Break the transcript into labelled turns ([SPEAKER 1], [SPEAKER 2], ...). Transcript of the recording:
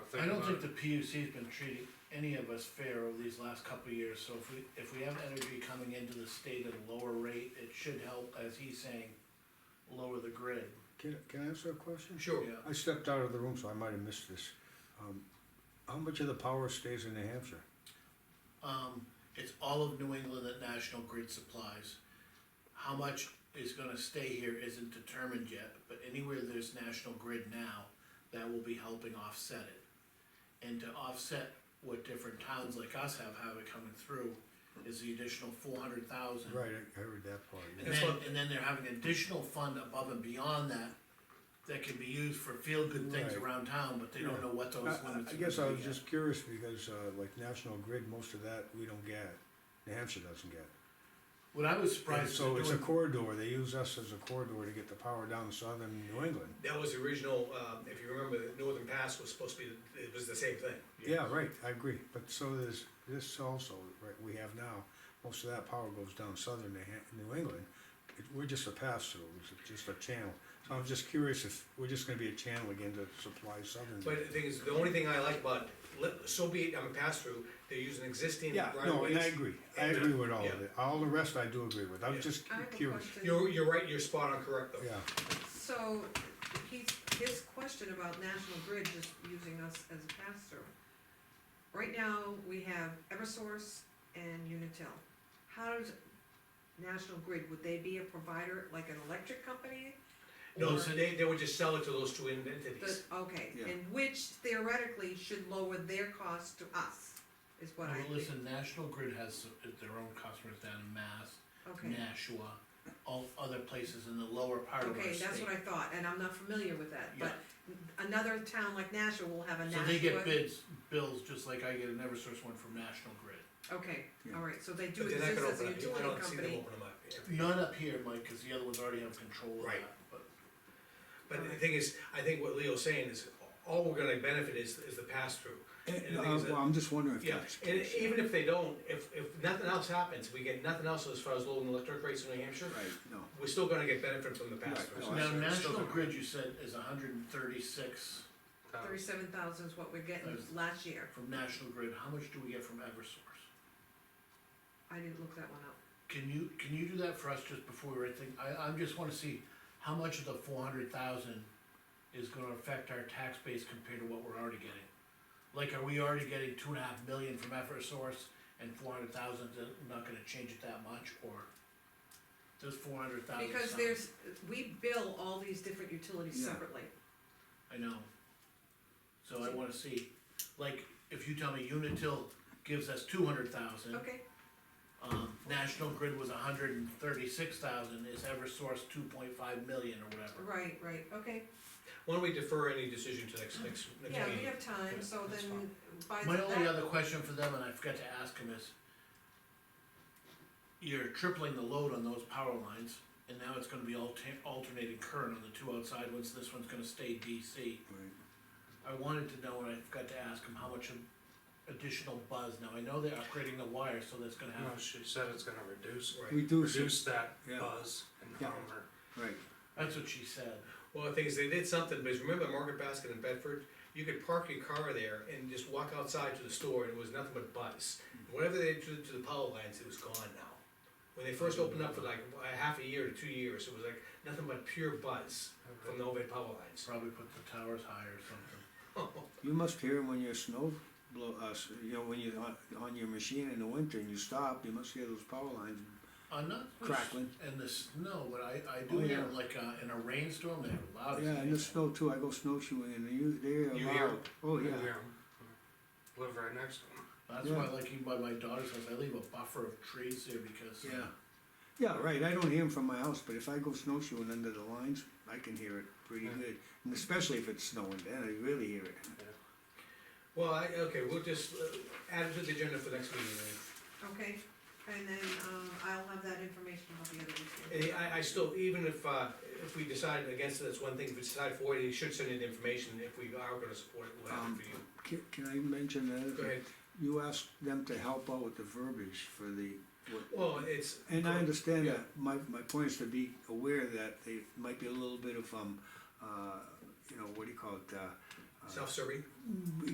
[SPEAKER 1] I don't think the PUC's been treating any of us fair over these last couple of years, so if we, if we have energy coming into the state at a lower rate, it should help, as he's saying, lower the grid,
[SPEAKER 2] Can, can I ask you a question?
[SPEAKER 3] Sure.
[SPEAKER 1] yeah.
[SPEAKER 2] I stepped out of the room, so I might have missed this. Um, how much of the power stays in New Hampshire?
[SPEAKER 1] Um, it's all of New England that National Grid supplies. How much is gonna stay here isn't determined yet, but anywhere there's National Grid now, that will be helping offset it. And to offset what different towns like us have, have it coming through, is the additional four hundred thousand.
[SPEAKER 2] Right, I, I heard that part. yeah.
[SPEAKER 1] And then, and then they're having additional fund above and beyond that, that can be used for feel-good things
[SPEAKER 2] Right.
[SPEAKER 1] around town, but they don't know what those
[SPEAKER 2] I-
[SPEAKER 1] limits
[SPEAKER 2] I,
[SPEAKER 1] are
[SPEAKER 2] I guess I
[SPEAKER 1] gonna be
[SPEAKER 2] was
[SPEAKER 1] yet.
[SPEAKER 2] just curious because, uh, like National Grid, most of that we don't get. New Hampshire doesn't get.
[SPEAKER 1] What I was
[SPEAKER 2] And
[SPEAKER 1] surprised is
[SPEAKER 2] so
[SPEAKER 1] they're
[SPEAKER 2] it's a
[SPEAKER 1] doing
[SPEAKER 2] corridor. They use us as a corridor to get the power down southern New England.
[SPEAKER 3] That was the original, um, if you remember, the Northern Pass was supposed to be, it was the same thing.
[SPEAKER 2] Yeah, right, I agree. But so there's this also, right, we have now, most of that power goes down southern New Han- New England. It, we're just a pass through, it's just a channel. So I'm just curious if we're just gonna be a channel again to supply southern.
[SPEAKER 3] But the thing is, the only thing I like about, let- so be it, I'm a pass-through, they're using existing
[SPEAKER 2] Yeah,
[SPEAKER 3] right
[SPEAKER 2] no, and I agree. I
[SPEAKER 3] And, uh,
[SPEAKER 2] agree with all of
[SPEAKER 3] yeah.
[SPEAKER 2] it. All the rest I do agree with.
[SPEAKER 3] Yeah.
[SPEAKER 2] I'm just
[SPEAKER 4] I have a
[SPEAKER 2] curious.
[SPEAKER 4] question,
[SPEAKER 3] You're, you're right, you're spot on correct though.
[SPEAKER 2] Yeah,
[SPEAKER 4] so, he's, his question about National Grid just using us as a pass-through. Right now, we have Eversource and Unitil. How does National Grid, would they be a provider, like an electric company?
[SPEAKER 3] No,
[SPEAKER 4] Or-
[SPEAKER 3] so they, they would just sell it to those two entities.
[SPEAKER 4] But- Okay,
[SPEAKER 2] Yeah.
[SPEAKER 4] and which theoretically should lower their cost to us, is what I
[SPEAKER 1] Well,
[SPEAKER 4] think,
[SPEAKER 1] listen, National Grid has their own customers down in Mass,
[SPEAKER 4] okay.
[SPEAKER 1] Nashua, all other places in the lower part of our
[SPEAKER 4] Okay,
[SPEAKER 1] state.
[SPEAKER 4] that's what I thought, and I'm not familiar with that, but
[SPEAKER 1] Yeah.
[SPEAKER 4] another town like Nashua will have a
[SPEAKER 1] So
[SPEAKER 4] Nashua.
[SPEAKER 1] they get bids, bills, just like I get an Eversource one from National Grid.
[SPEAKER 4] Okay,
[SPEAKER 2] Yeah.
[SPEAKER 4] all right, so they do
[SPEAKER 3] But they're not
[SPEAKER 4] exist
[SPEAKER 3] gonna
[SPEAKER 4] as a
[SPEAKER 3] open up, I
[SPEAKER 4] utility
[SPEAKER 3] don't see them
[SPEAKER 4] company,
[SPEAKER 3] open them up. yeah.
[SPEAKER 1] Not up here, Mike, cause the other ones already have control of that,
[SPEAKER 3] Right.
[SPEAKER 1] but
[SPEAKER 3] But the thing is, I think what Leo's saying is, all we're gonna benefit is, is the pass-through. And the
[SPEAKER 2] Uh,
[SPEAKER 3] thing is that-
[SPEAKER 2] well, I'm just wondering if
[SPEAKER 3] Yeah,
[SPEAKER 2] that's. the
[SPEAKER 3] and
[SPEAKER 2] case.
[SPEAKER 3] even if they don't, if, if nothing else happens, we get nothing else as far as low and electric rates in New Hampshire,
[SPEAKER 2] Right, no.
[SPEAKER 3] we're still gonna get benefit from the pass-through.
[SPEAKER 2] Right,
[SPEAKER 3] So
[SPEAKER 2] no, Oh, I-
[SPEAKER 1] now
[SPEAKER 2] see.
[SPEAKER 1] National
[SPEAKER 3] Still-
[SPEAKER 1] Grid, you said, is hundred and thirty-six
[SPEAKER 3] um,
[SPEAKER 4] thirty-seven thousand is what we're getting
[SPEAKER 1] Thirty-
[SPEAKER 4] last year,
[SPEAKER 1] from National Grid, how much do we get from Eversource?
[SPEAKER 4] I didn't look that one up.
[SPEAKER 1] Can you, can you do that for us just before we write thing, I, I just wanna see how much of the four hundred thousand is gonna affect our tax base compared to what we're already getting? Like, are we already getting two and a half million from Eversource and four hundred thousand, not gonna change it that much, or does four hundred thousand
[SPEAKER 4] Because there's, we bill all these different utilities
[SPEAKER 2] Yeah.
[SPEAKER 4] separately,
[SPEAKER 1] I know. So I wanna see, like, if you tell me Unitil gives us two hundred thousand,
[SPEAKER 4] okay,
[SPEAKER 1] um, National Grid was hundred and thirty-six thousand, is Eversource two point five million or whatever?
[SPEAKER 4] right, right, okay.
[SPEAKER 3] Why don't we defer any decision to next, next,
[SPEAKER 4] Yeah,
[SPEAKER 3] next
[SPEAKER 4] we
[SPEAKER 3] meeting?
[SPEAKER 4] have time, so
[SPEAKER 1] that's
[SPEAKER 4] then by
[SPEAKER 1] My
[SPEAKER 4] the-
[SPEAKER 1] only
[SPEAKER 4] that,
[SPEAKER 1] other question for them, and I forgot to ask him, is you're tripling the load on those power lines, and now it's gonna be alta- alternating current on the two outside ones, this one's gonna stay DC.
[SPEAKER 2] Right.
[SPEAKER 1] I wanted to know, and I forgot to ask him, how much of additional buzz, now I know they're upgrading the wire, so that's gonna
[SPEAKER 5] No,
[SPEAKER 1] have,
[SPEAKER 5] Oh, she said it's gonna reduce,
[SPEAKER 3] Right.
[SPEAKER 2] Reduce, it,
[SPEAKER 5] reduce that
[SPEAKER 2] Yeah.
[SPEAKER 5] buzz and
[SPEAKER 2] Yeah.
[SPEAKER 5] humor.
[SPEAKER 2] right.
[SPEAKER 1] that's what she said.
[SPEAKER 3] Well, the thing is, they did something, because remember Market Basket in Bedford? You could park your car there and just walk outside to the store and it was nothing but buzz. Whatever they did to, to the power lines, it was gone now. When they first opened up for like a half a year to two years, it was like nothing but pure buzz from the overhead power lines.
[SPEAKER 1] Probably put the towers high or something.
[SPEAKER 2] You must hear 'em when your snow blow, uh, s- you know, when you're on, on your machine in the winter and you stop, you must hear those power lines.
[SPEAKER 1] I'm not.
[SPEAKER 2] Crackling.
[SPEAKER 1] And the snow, but I, I do
[SPEAKER 2] Oh,
[SPEAKER 1] hear
[SPEAKER 2] yeah.
[SPEAKER 1] it like, uh, in a rainstorm, they're loud. as
[SPEAKER 2] Yeah, and the
[SPEAKER 1] anything.
[SPEAKER 2] snow too, I go snowshoeing and you, they are
[SPEAKER 3] Oh, You hear
[SPEAKER 2] loud. Oh, yeah.
[SPEAKER 5] Live right next to them.
[SPEAKER 1] That's
[SPEAKER 2] Yeah.
[SPEAKER 1] why, like, even by my daughter's house, I leave a buffer of trees there because. uh,
[SPEAKER 2] Yeah. Yeah, right, I don't hear 'em from my house, but if I go snowshoeing under the lines, I can hear it pretty
[SPEAKER 5] Yeah.
[SPEAKER 2] good. And especially if it's snowing, then I really hear it.
[SPEAKER 3] Well, I, okay, we'll just uh, add it to the agenda for next meeting.
[SPEAKER 4] okay, and then, um, I'll have that information about the other two.
[SPEAKER 3] And I, I still, even if, uh, if we decide against it, that's one thing, if we decide for it, you should send in the information, if we are gonna support it, we'll
[SPEAKER 2] Um,
[SPEAKER 3] have it for you.
[SPEAKER 2] Can, can I mention that?
[SPEAKER 3] Go ahead,
[SPEAKER 2] You asked them to help out with the verbiage for the, what,
[SPEAKER 3] well, it's.
[SPEAKER 2] And I understand
[SPEAKER 3] Yeah.
[SPEAKER 2] that, my, my point is to be aware that they might be a little bit of, um, uh, you know, what do you call it, uh, uh,
[SPEAKER 3] Self-serving?